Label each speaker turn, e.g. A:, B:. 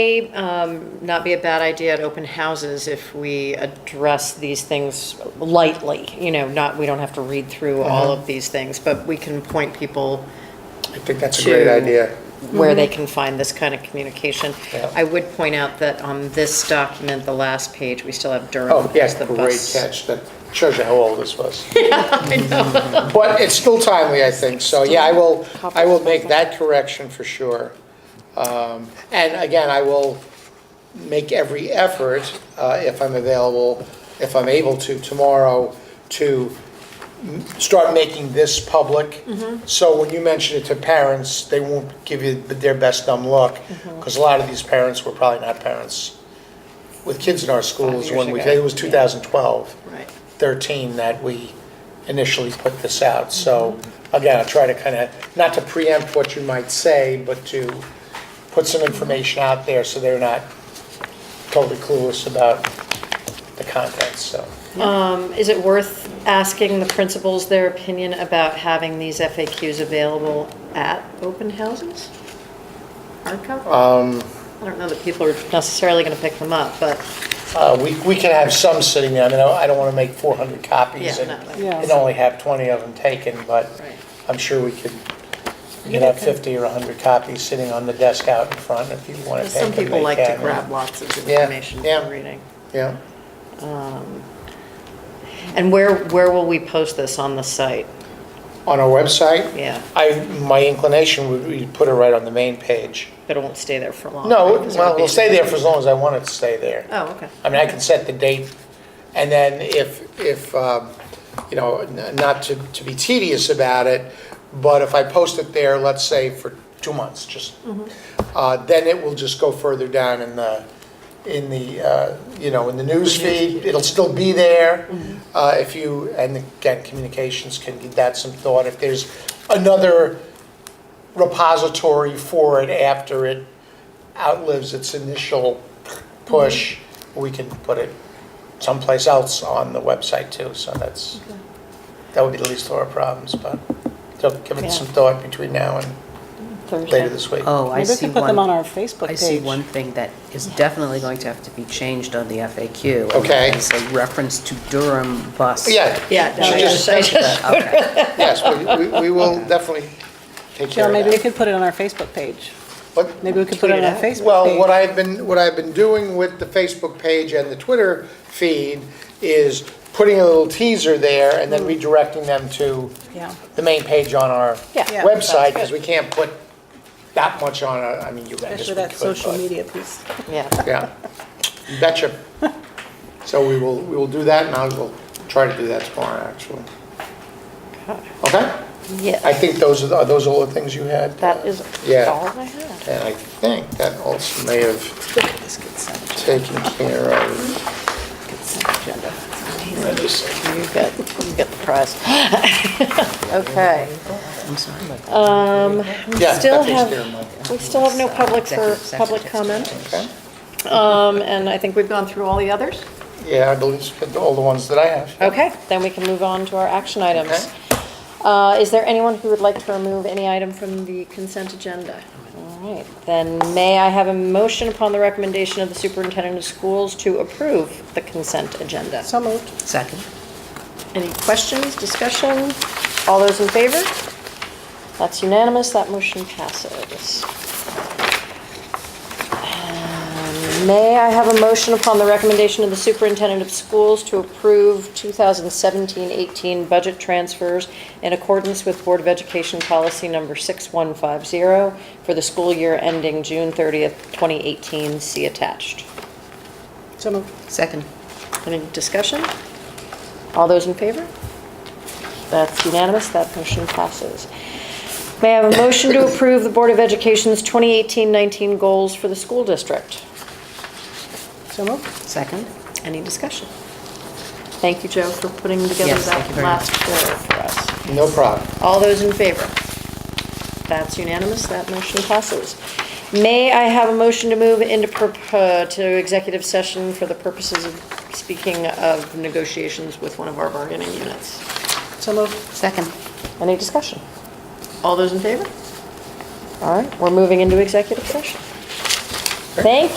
A: may um, not be a bad idea at open houses if we address these things lightly, you know, not, we don't have to read through
B: Uh-huh.
A: all of these things, but we can point people
B: I think that's a great
A: to-
B: idea.
A: where they can find this kind of communication.
B: Mm-hmm. Yeah.
A: I would point out that on this document, the last page, we still have Durham
B: Oh,
A: as
B: yes,
A: the
B: great
A: bus.
B: catch. That shows you how old this was. But it's still timely, I think, so yeah, I will, I will make that correction for sure. Um, And again, I will make every effort, uh, if I'm available, if I'm able to tomorrow, to m- start making this public.
A: Mm-hmm.
B: So when you mention it to parents, they won't give you their best dumb look,
A: Mm-hmm.
B: because a lot of these parents were probably not parents with kids in our schools
A: years
B: when we,
A: ago.
B: it was 2012.
A: Right.
B: 13 that we initially put this out. So again, I'll try to kind of, not to preempt what you might say, but to put some information out there so they're not totally clueless about the contents, so.
A: Um, Is it worth asking the principals their opinion about having these FAQs available at open houses? Hard copy?
B: Um,
A: I don't know that people are necessarily going to pick them up, but,
B: Uh, We we can have some sitting there, I mean, I I don't want to make 400 copies
A: Yeah,
B: and
A: no, no.
C: Yeah.
B: and only have 20 of them taken, but
A: Right.
B: I'm sure we could, we could have 50 or 100 copies sitting on the desk out in front if you want to take them.
A: some people
B: they
A: like to
B: can.
A: grab lots of
B: Yeah,
A: information
B: yeah.
A: from reading.
B: Yeah.
A: And where, where will we post this on the site?
B: On our website?
A: Yeah,
B: I, my inclination would be to put it right on the main page.
A: but it won't stay there for long.
B: No,
A: right? 'Cause it would
B: well,
A: be-
B: it'll stay there for as long as I want it to stay there.
A: Oh, okay.
B: I mean, I can set the date, and then if, if, um, you know, n- not to, to be tedious about it, but if I post it there, let's say for two months, just, uh, then it will just go further down in the, in the, uh, you know, in the news feed. It'll still be there. Uh, If you, and again, communications can give that some thought. If there's another repository for it after it outlives its initial push,
C: Mm-hmm.
B: we can put it someplace else on the website too, so that's, that would be the least of our problems, but so give it some
A: Yeah.
B: thought between now and later
C: Thursday.
B: this week.
D: Oh, I
C: Maybe we
D: see
C: could put them on
D: one,
C: our Facebook page.
D: I see one thing that is definitely going to have to be changed on the FAQ. and
B: Okay.
D: that is a reference to Durham bus.
B: Yeah,
A: Yeah, no,
B: She
A: I
B: just
A: just- I
B: said
A: just-
D: Okay,
B: yes, we- we, we will definitely take care
C: Jill,
B: of
C: maybe we
B: that.
C: could put it on our Facebook page.
B: What-
C: Maybe we could put it
A: Tweet
C: on
A: it
C: our
A: out.
C: Facebook page.
B: Well, what I've been, what I've been doing with the Facebook page and the Twitter feed is putting a little teaser there and
C: Mm.
B: then redirecting them to
C: Yeah.
B: the main page on our
C: Yeah. Yeah,
B: website,
C: sounds
B: because we can't put that much on, our- I mean, you, I guess
C: Especially
B: we
C: that
B: could,
C: social
B: but-
C: media piece.
A: Yeah,
B: Yeah, You betcha. So we will, we will do that, and I will try to do that tomorrow, actually. Okay? I
A: yeah,
B: think those are, the- are those all the things you had?
A: that is
B: Yeah.
A: all I have.
B: And I think that also may have
C: Look at this consent,
B: taken care of.
C: consent agenda.
B: I just-
A: You got, you got the prize. Okay.
D: I'm sorry about that.
A: Um, we
B: Yeah,
A: still
B: that takes care of
A: have,
B: mine.
A: we still have no public for,
D: Executive session
A: public
D: takes
A: comment.
D: place.
B: Okay.
A: Um, and I think we've gone through all the others.
B: Yeah, I believe it's all the ones that I have.
A: Okay, then we can move on to our action items. Uh, is there anyone who would like to remove any item from the consent agenda? All right, then may I have a motion upon the recommendation of the superintendent of schools to approve the consent agenda?
C: So moved.
D: Second.
A: Any questions, discussion? All those in favor? That's unanimous, that motion passes. And May I have a motion upon the recommendation of the superintendent of schools to approve 2017-18 budget transfers in accordance with Board of Education Policy Number 6150 for the school year ending June 30th, 2018, see attached.
C: So moved.
D: Second.
A: Any discussion? All those in favor? That's unanimous, that motion passes. May I have a motion to approve the Board of Education's 2018-19 goals for the school district?
C: So moved.
D: Second.
A: Any discussion? Thank you, Joe, for putting together
D: Yes, thank
A: that
D: you very
A: last
D: much.
A: quarter for us.
B: No problem.
A: All those in favor? That's unanimous, that motion passes. May I have a motion to move into, perp- uh, to executive session for the purposes of speaking of negotiations with one of our bargaining units?
C: So moved.
D: Second.
A: Any discussion? All those in favor? All right, we're moving into executive session.
B: Great.
D: effort.
A: Thank you.